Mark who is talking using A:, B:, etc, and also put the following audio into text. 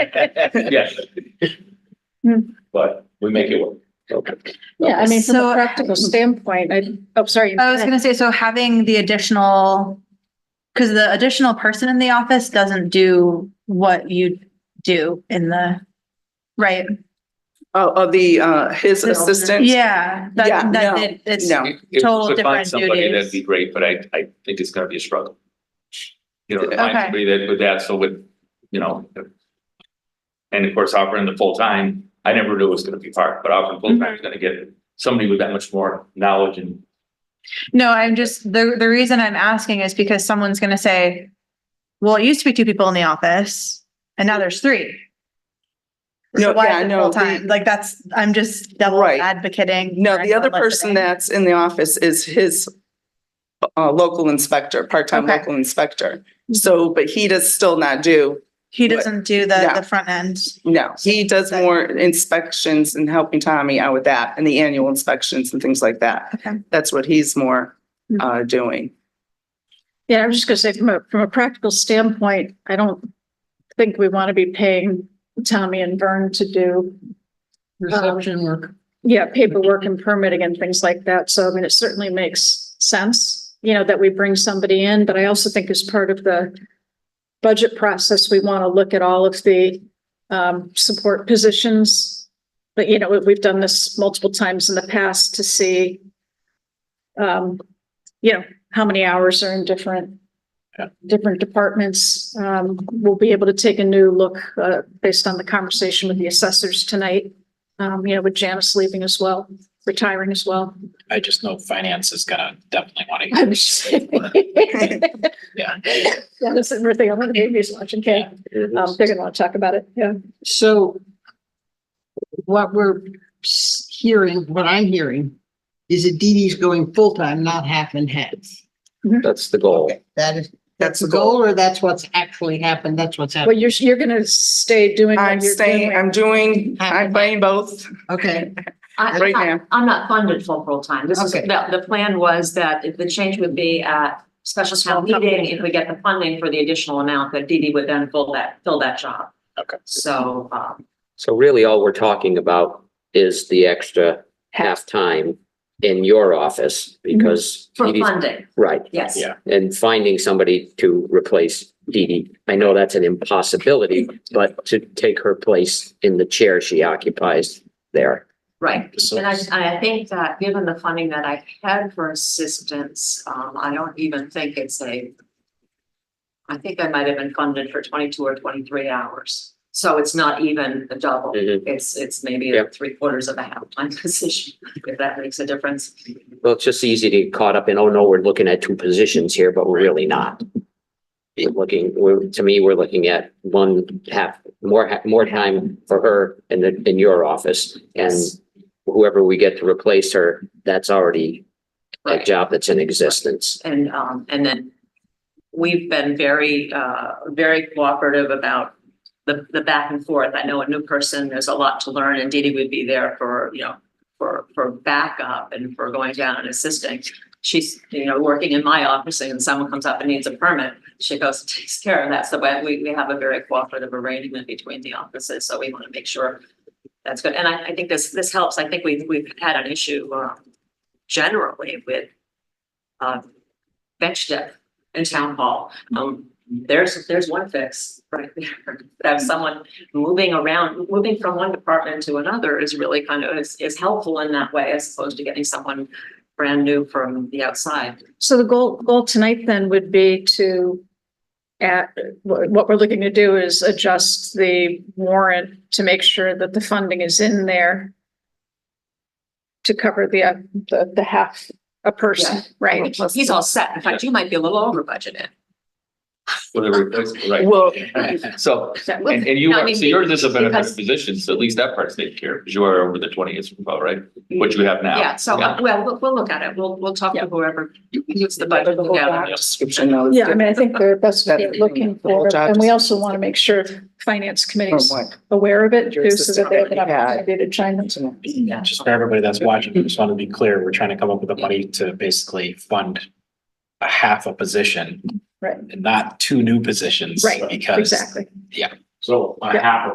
A: Yes.
B: Hmm.
A: But we make it work. Okay.
C: Yeah, I mean, from
B: So-
C: a practical standpoint, I, oh, sorry.
B: I was gonna say, so having the additional, because the additional person in the office doesn't do what you do in the, right?
D: Oh, oh, the, uh, his
C: The alternate.
D: assistant?
B: Yeah,
D: Yeah,
B: that, that
D: no,
B: it- it's,
D: No.
A: If- if we could
B: Total
A: find
B: different
A: somebody,
B: duties.
A: That'd be great, but I, I think it's gonna be a struggle. You know, to find
B: Okay.
A: somebody that, with that, so with, you know. And of course, offering the full time, I never knew it was gonna be part, but offering full time is gonna get somebody with that much more knowledge and.
B: no, I'm just, the, the reason I'm asking is because someone's gonna say, well, it used to be two people in the office and now there's three. So
D: No,
B: why
D: yeah,
B: is it
D: no, the-
B: full-time? Like that's, I'm just double
D: Right.
B: advocating.
D: No,
B: for
D: the other
B: anyone
D: person
B: listening.
D: that's in the office is his uh, local inspector, part-time
B: Okay.
D: local inspector. So, but he does still not do,
B: He doesn't do the,
D: Yeah.
B: the front end.
D: no, he does more inspections and helping Tommy out with that and the annual inspections and things like that.
B: Okay.
D: That's what he's more,
C: Mm.
D: uh, doing.
C: Yeah, I was just gonna say, from a, from a practical standpoint, I don't think we want to be paying Tommy and Vern to do,
E: Reception work.
C: yeah, paperwork and permitting and things like that. So I mean, it certainly makes sense, you know, that we bring somebody in, but I also think as part of the budget process, we want to look at all of the um, support positions. But, you know, we- we've done this multiple times in the past to see um, you know, how many hours are in different different departments. Um, we'll be able to take a new look, uh, based on the conversation with the assessors tonight. Um, you know, with Janice leaving as well, retiring as well.
E: I just know finance is gonna definitely wanna.
C: I'm just-
E: Yeah.
C: Yeah, this is everything. I'm gonna be just watching, okay? Um, they're gonna want to talk about it, yeah.
E: So what we're s- hearing, what I'm hearing is that Dee Dee's going full-time, not half and half.
A: That's the goal.
E: That is,
D: That's
E: that's
D: the
E: the
D: goal.
E: goal or that's what's actually happened? That's what's
C: Well,
E: happened.
C: you're, you're gonna stay doing. what
D: I'm
C: you're
D: staying,
C: doing.
D: I'm doing, I'm playing both
E: Okay,
F: I-
D: right
F: I-
D: now.
F: I'm not funded full full-time. This is,
E: Okay.
F: the, the plan was that if the change would be at special town meeting, if we get the funding for the additional amount, that Dee Dee would then fill that, fill that job.
E: Okay.
F: So, um,
G: So really, all we're talking about is the extra half-time in your office because.
F: Mm-hmm. for
G: Dee Dee's-
F: funding,
G: Right,
F: yes.
E: Yeah.
G: and finding somebody to replace Dee Dee. I know that's an impossibility, but to take her place in the chair she occupies there.
F: Right.
E: So-
F: And I, and I think that given the funding that I had for assistance, um, I don't even think it's a. I think I might have been funded for twenty-two or twenty-three hours. So it's not even a double.
G: Mhm.
F: It's, it's maybe
G: Yeah.
F: three quarters of a half time position, if that makes a difference.
G: Well, it's just easy to get caught up in, oh no, we're looking at two positions here, but we're really not. We're Looking, we're, to me, we're looking at one half, more, ha- more time for her in the, in your office. And
F: Yes.
G: whoever we get to replace her, that's already a
F: Right.
G: job that's in existence.
F: And, um, and then we've been very, uh, very cooperative about the, the back and forth. I know a new person, there's a lot to learn and Dee Dee would be there for, you know, for, for backup and for going down and assisting. She's, you know, working in my office and someone comes up and needs a permit, she goes and takes care of that. So we- we, we have a very cooperative arrangement between the offices, so we want to make sure that's good. And I, I think this, this helps. I think we've, we've had an issue, uh, generally with uh, bench depth in town hall. Um, there's, there's one fix right there. Have someone moving around, moving from one department to another is really kind of, is, is helpful in that way as opposed to getting someone brand new from the outside.
C: So the goal, goal tonight then would be to at, what what we're looking to do is adjust the warrant to make sure that the funding is in there to cover the, uh, the, the half a person, right?
F: He's all set. In fact, you might be a little over budgeted.
A: Whatever, that's right.
D: Well,
A: So, and, and you
F: No, I
A: are,
F: mean,
A: so yours is a
F: because-
A: benefit position, so at least that part's taken care of, because you are over the twenty as well, right? What you have now.
F: Yeah, so, uh, well, we'll, we'll look at it. We'll, we'll talk to whoever needs the
D: But
F: budget.
D: the whole
F: together.
D: job description though is
C: Yeah, I mean, I think they're, that's what they're
D: Better.
C: looking
D: The whole
C: for,
D: job
C: and we also want to make sure finance committee's
D: From what?
C: aware of it
D: Your
C: too, so that they have an
D: system. Yeah.
C: opportunity to chime in.
D: different.
F: Yeah.
H: just for everybody that's watching, I just want to be clear, we're trying to come up with the money to basically fund a half a position.
C: Right.
H: And not two new positions.
C: Right,
H: Because
C: Exactly.
A: So
C: Yeah.
A: half